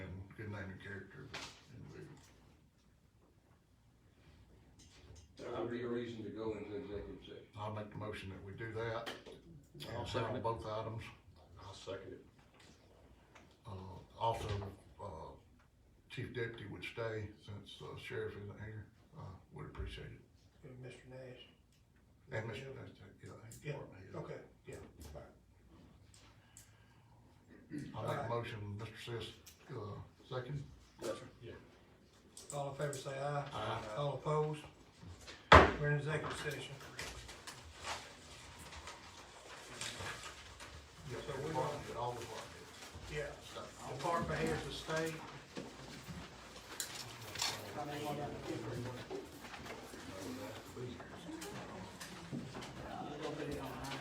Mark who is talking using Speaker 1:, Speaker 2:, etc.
Speaker 1: minor character, but anyway.
Speaker 2: That would be a reason to go into executive session.
Speaker 1: I'll make the motion that we do that.
Speaker 3: I'll
Speaker 1: And
Speaker 3: second
Speaker 1: on
Speaker 3: it.
Speaker 1: Both items.
Speaker 3: I'll second it.
Speaker 1: Uh, also, uh, Chief Deputy would stay since uh, Sheriff isn't here. Uh, would appreciate it.
Speaker 4: And Mr. Nash,
Speaker 1: And Mr.
Speaker 4: Yeah.
Speaker 1: That's, yeah, he's
Speaker 4: Yeah,
Speaker 1: department head.
Speaker 4: okay, yeah, fine.
Speaker 1: I'll make
Speaker 4: Alright.
Speaker 1: a motion, Mr. Sis, uh, second.
Speaker 3: Yes, sir. Yeah.
Speaker 4: All in favor, say aye.
Speaker 1: Aye.
Speaker 4: All opposed? We're in executive session.
Speaker 1: Yes,
Speaker 4: So we
Speaker 1: department head, all department heads.
Speaker 4: Yeah. Department heads of state.